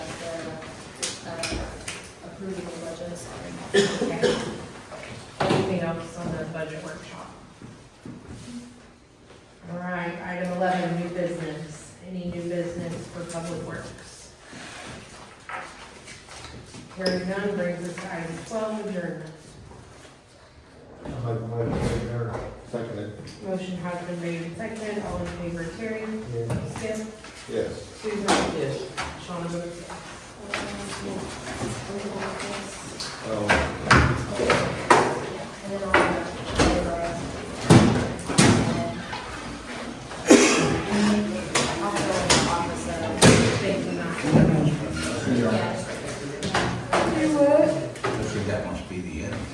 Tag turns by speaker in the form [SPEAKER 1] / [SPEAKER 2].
[SPEAKER 1] Okay. Anything else on the budget workshop? All right, item eleven, new business. Any new business for public works? Hearing none brings us to item twelve, adjournment.
[SPEAKER 2] Second it.
[SPEAKER 1] Motion has been made and seconded, all in favor, Terry? Skip?
[SPEAKER 2] Yes.
[SPEAKER 1] Susan? Yes. Shawna votes yes.
[SPEAKER 2] Oh, Um,
[SPEAKER 1] And then all of us.